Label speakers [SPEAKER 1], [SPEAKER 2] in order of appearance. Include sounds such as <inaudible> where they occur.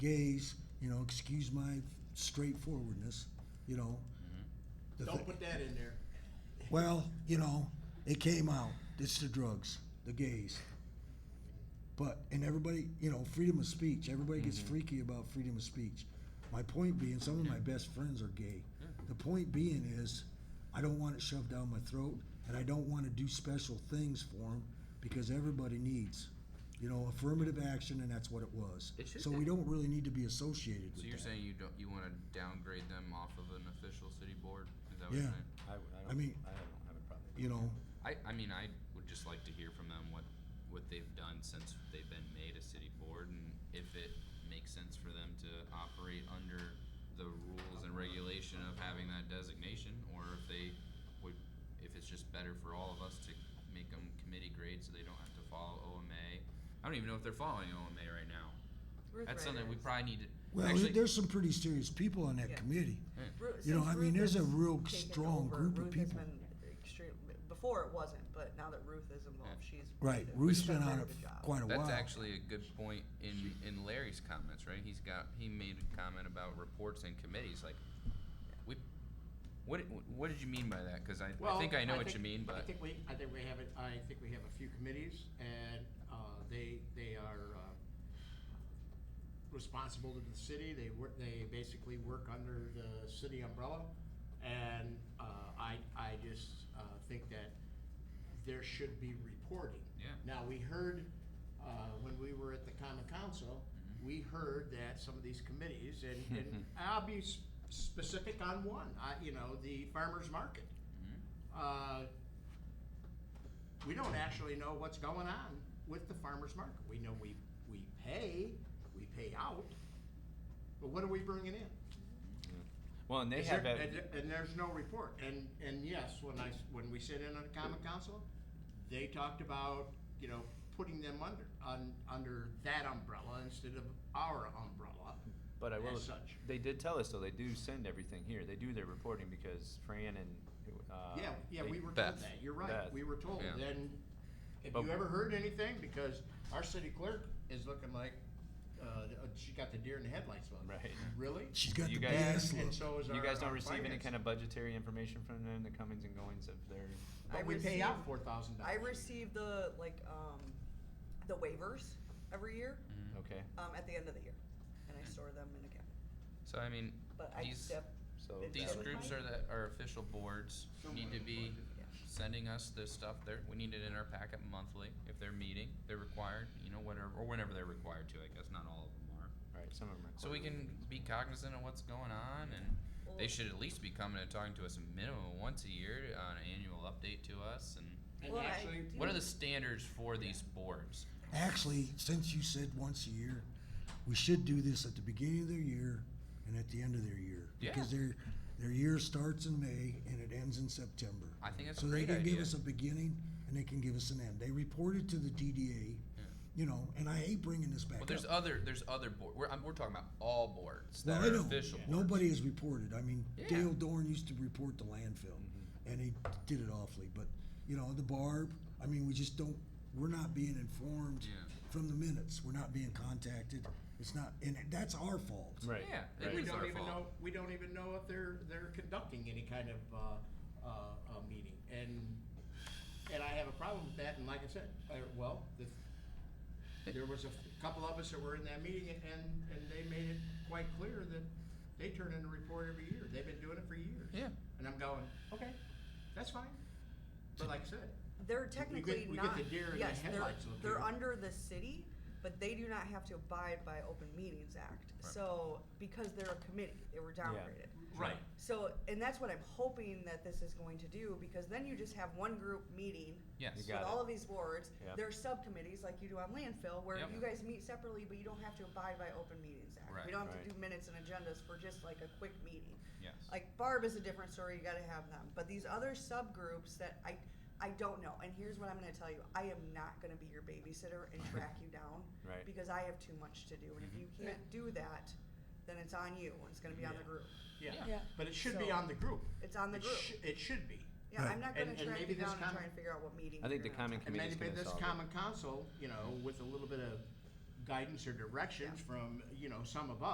[SPEAKER 1] gays, you know, excuse my straightforwardness, you know. the
[SPEAKER 2] Don't
[SPEAKER 1] thi-
[SPEAKER 2] put that in there.
[SPEAKER 1] Well, you know, it came out. It's the drugs, the gays. But and everybody, you know, freedom of speech. Everybody gets freaky about freedom of speech. My point being, some of my best friends are gay. The point being is, I don't want it shoved down my throat, and I don't want to do special things for them because everybody needs, you know, affirmative action, and that's what it was.
[SPEAKER 3] It should
[SPEAKER 1] so we
[SPEAKER 3] be.
[SPEAKER 1] don't really need to be associated with
[SPEAKER 3] So you're
[SPEAKER 1] that.
[SPEAKER 3] saying you don't you want to downgrade them off of an official city board? Is that what
[SPEAKER 1] Yeah.
[SPEAKER 3] you're saying?
[SPEAKER 4] I, w- I
[SPEAKER 1] I
[SPEAKER 4] don't,
[SPEAKER 1] mean-
[SPEAKER 4] I don't have a problem.
[SPEAKER 1] you know,
[SPEAKER 3] I, I mean, I would just like to hear from them what, what they've done since they've been made a city board and if it makes sense for them to operate under the rules and regulation of having that designation or if they would, if it's just better for all of us to make them committee grade so they don't have to follow OMA. I don't even know if they're following OMA right now.
[SPEAKER 5] Ruth
[SPEAKER 3] That's something we
[SPEAKER 5] Riders.
[SPEAKER 3] probably need to.
[SPEAKER 1] well,
[SPEAKER 3] actually,
[SPEAKER 1] there's some pretty serious people on that
[SPEAKER 5] Yeah.
[SPEAKER 1] committee.
[SPEAKER 5] Ru-
[SPEAKER 1] You know,
[SPEAKER 5] since
[SPEAKER 1] I mean,
[SPEAKER 5] Ruth
[SPEAKER 1] there's a
[SPEAKER 5] has
[SPEAKER 1] real
[SPEAKER 5] taken
[SPEAKER 1] strong
[SPEAKER 5] over,
[SPEAKER 1] group of
[SPEAKER 5] Ruth has
[SPEAKER 1] people.
[SPEAKER 5] been extreme- before it wasn't, but now that Ruth is involved, she's
[SPEAKER 1] Right,
[SPEAKER 5] did-
[SPEAKER 1] Ruth's
[SPEAKER 5] she's
[SPEAKER 1] been
[SPEAKER 5] done
[SPEAKER 1] on
[SPEAKER 5] a
[SPEAKER 1] it
[SPEAKER 5] very good
[SPEAKER 1] for
[SPEAKER 5] job.
[SPEAKER 1] quite a while.
[SPEAKER 3] That's actually a good point in in Larry's comments, right? He's got he made a comment about reports and committees. Like, we, what what did you mean by that? Because I, I think I know what you
[SPEAKER 2] think-
[SPEAKER 3] mean,
[SPEAKER 2] I
[SPEAKER 3] but
[SPEAKER 2] think we, I think we have it, I think we have a few committees and, uh, they, they are, uh, responsible to the city. They work, they basically work under the city umbrella. And, uh, I, I just, uh, think that there should be reporting.
[SPEAKER 3] Yeah.
[SPEAKER 2] Now, we heard, uh, when we were at the common council,
[SPEAKER 3] Mm-hmm.
[SPEAKER 2] we heard that some of these committees, and,
[SPEAKER 4] <laughs>
[SPEAKER 2] and I'll be s- specific on one, I, you know, the farmer's market.
[SPEAKER 4] Mm-hmm.
[SPEAKER 2] Uh, we don't actually know what's going on with the farmer's market. We know we, we pay, we pay out, but what are we bringing in?
[SPEAKER 4] Well, and they
[SPEAKER 2] Is
[SPEAKER 4] have
[SPEAKER 2] there-
[SPEAKER 4] a,
[SPEAKER 2] and, and there's no report. And and yes, when I s- when we sit in on the common council, they talked about you know putting them under un, under that umbrella instead of our umbrella.
[SPEAKER 4] but I will.
[SPEAKER 2] as such.
[SPEAKER 4] They did tell us though. They do send everything here. They do their reporting because Fran and uh,
[SPEAKER 2] yeah, yeah,
[SPEAKER 4] they-
[SPEAKER 2] we were
[SPEAKER 3] Beth.
[SPEAKER 2] told that. You're right.
[SPEAKER 4] Beth.
[SPEAKER 2] We were told.
[SPEAKER 3] Yeah.
[SPEAKER 2] Then, have
[SPEAKER 4] But-
[SPEAKER 2] you ever heard anything? Because our city clerk is looking like uh, she got the deer in the headlights look.
[SPEAKER 4] Right.
[SPEAKER 2] Really?
[SPEAKER 1] She's got
[SPEAKER 4] You
[SPEAKER 1] the bass
[SPEAKER 4] guys-
[SPEAKER 2] And
[SPEAKER 1] look.
[SPEAKER 2] so is
[SPEAKER 4] You
[SPEAKER 2] our-
[SPEAKER 4] guys don't
[SPEAKER 2] our
[SPEAKER 4] receive any
[SPEAKER 2] finance.
[SPEAKER 4] kind of budgetary information from them, the comings and goings of their.
[SPEAKER 2] But
[SPEAKER 5] I
[SPEAKER 2] we pay out
[SPEAKER 5] receive-
[SPEAKER 2] four thousand dollars.
[SPEAKER 5] I receive the like um, the waivers every year
[SPEAKER 3] Mm-hmm.
[SPEAKER 4] Okay,
[SPEAKER 5] um, at the end of the year, and I store them in a cabinet.
[SPEAKER 3] so I mean,
[SPEAKER 5] But I
[SPEAKER 3] Mm-hmm. these
[SPEAKER 5] def-
[SPEAKER 4] so
[SPEAKER 5] It
[SPEAKER 3] these
[SPEAKER 5] doesn't-
[SPEAKER 4] that would-
[SPEAKER 3] groups are that are official boards need to be
[SPEAKER 5] yeah.
[SPEAKER 3] sending us this stuff. There we need it in our packet monthly if they're meeting. They're required, you know, whatever or whenever they're required to. I guess not all of them are.
[SPEAKER 4] right. Some of them are.
[SPEAKER 3] So we
[SPEAKER 4] quarterly.
[SPEAKER 3] can be cognizant of what's going on, and they
[SPEAKER 5] Well-
[SPEAKER 3] should at least be coming and talking to us a minimum once a year on an annual update to us. And
[SPEAKER 2] And
[SPEAKER 5] Well, I
[SPEAKER 2] actually,
[SPEAKER 5] do-
[SPEAKER 3] what are the standards for these boards?
[SPEAKER 1] Actually, since you said once a year, we should do this at the beginning of their year and at the end of their year. Because
[SPEAKER 3] Yeah.
[SPEAKER 1] their, their year starts in May and it ends in September.
[SPEAKER 3] I think that's
[SPEAKER 1] So
[SPEAKER 3] a
[SPEAKER 1] they
[SPEAKER 3] great
[SPEAKER 1] can
[SPEAKER 3] idea.
[SPEAKER 1] give us a beginning and they can give us an end. They reported to the DDA, you know, and I hate bringing this back
[SPEAKER 3] well,
[SPEAKER 1] up.
[SPEAKER 3] there's other there's other board. We're, I'm, we're talking about all boards
[SPEAKER 1] Well,
[SPEAKER 3] that
[SPEAKER 1] I
[SPEAKER 3] are
[SPEAKER 1] know.
[SPEAKER 3] official. boards.
[SPEAKER 1] Nobody has reported. I mean,
[SPEAKER 3] Yeah.
[SPEAKER 1] Dale Dorn used to report the landfill, and he did it awfully. But you know, the barb. I mean, we just don't. We're not being informed
[SPEAKER 3] Yeah.
[SPEAKER 1] from the minutes. We're not being contacted. It's not, and that's our fault.
[SPEAKER 4] Right.
[SPEAKER 3] Yeah, it
[SPEAKER 4] Right.
[SPEAKER 2] We
[SPEAKER 3] is
[SPEAKER 2] don't
[SPEAKER 3] our
[SPEAKER 2] even
[SPEAKER 3] fault.
[SPEAKER 2] know, we don't even know if they're, they're conducting any kind of, uh, uh, uh, meeting, and, and I have a problem with that, and like I said, I, well, the, there was a f- couple of us that were in that meeting, and, and they made it quite clear that they turn in a report every year, they've been doing it for years.
[SPEAKER 3] Yeah.
[SPEAKER 2] And I'm going, okay, that's fine, but like I said,
[SPEAKER 5] They're
[SPEAKER 2] get-
[SPEAKER 5] technically
[SPEAKER 2] we get
[SPEAKER 5] not.
[SPEAKER 2] the deer in the
[SPEAKER 5] yes, they're,
[SPEAKER 2] headlights up
[SPEAKER 5] they're
[SPEAKER 2] here.
[SPEAKER 5] under the city, but they do not have to abide by Open Meetings Act.
[SPEAKER 3] Right.
[SPEAKER 5] So because they're a committee, they were downgraded.
[SPEAKER 2] right,
[SPEAKER 5] So and that's what I'm hoping that this is going to do because then you just have one group meeting
[SPEAKER 3] Yes.
[SPEAKER 4] You
[SPEAKER 5] with
[SPEAKER 4] Got it.
[SPEAKER 5] all of these boards.
[SPEAKER 4] Yep.
[SPEAKER 5] There's subcommittees like you do on landfill where
[SPEAKER 3] Yep.
[SPEAKER 5] you guys meet separately, but you don't have to abide by Open Meetings Act.
[SPEAKER 3] Right.
[SPEAKER 5] We don't have
[SPEAKER 4] Right.
[SPEAKER 5] to do minutes and agendas for just like a quick meeting.
[SPEAKER 3] Yes.
[SPEAKER 5] Like Barb is a different story. You got to have them. But these other subgroups that I I don't know. And here's what I'm going to tell you. I am not going to be your babysitter
[SPEAKER 4] <laughs>
[SPEAKER 5] and track you down
[SPEAKER 4] Right. Mm-hmm.
[SPEAKER 5] because I have too much to do. And if you can't do that, then it's on you. And it's going to be on the
[SPEAKER 2] Yeah.
[SPEAKER 5] group.
[SPEAKER 2] yeah,
[SPEAKER 3] Yeah.
[SPEAKER 2] but it should be
[SPEAKER 5] So-
[SPEAKER 2] on the group.
[SPEAKER 5] It's on the
[SPEAKER 2] It
[SPEAKER 5] group.
[SPEAKER 2] sh- It should be.
[SPEAKER 5] Yeah,
[SPEAKER 1] Right.
[SPEAKER 5] I'm not going
[SPEAKER 2] And-
[SPEAKER 5] to
[SPEAKER 2] and
[SPEAKER 5] track
[SPEAKER 2] maybe
[SPEAKER 5] you
[SPEAKER 2] this
[SPEAKER 5] down and
[SPEAKER 2] com-
[SPEAKER 5] try and figure out what meeting.
[SPEAKER 4] I think
[SPEAKER 5] you're gonna
[SPEAKER 4] the common
[SPEAKER 5] attend.
[SPEAKER 2] And
[SPEAKER 4] Committee's
[SPEAKER 2] maybe
[SPEAKER 4] gonna
[SPEAKER 2] this
[SPEAKER 4] solve it.
[SPEAKER 2] common council, you know, with a little bit of guidance or directions from, you know, some of us.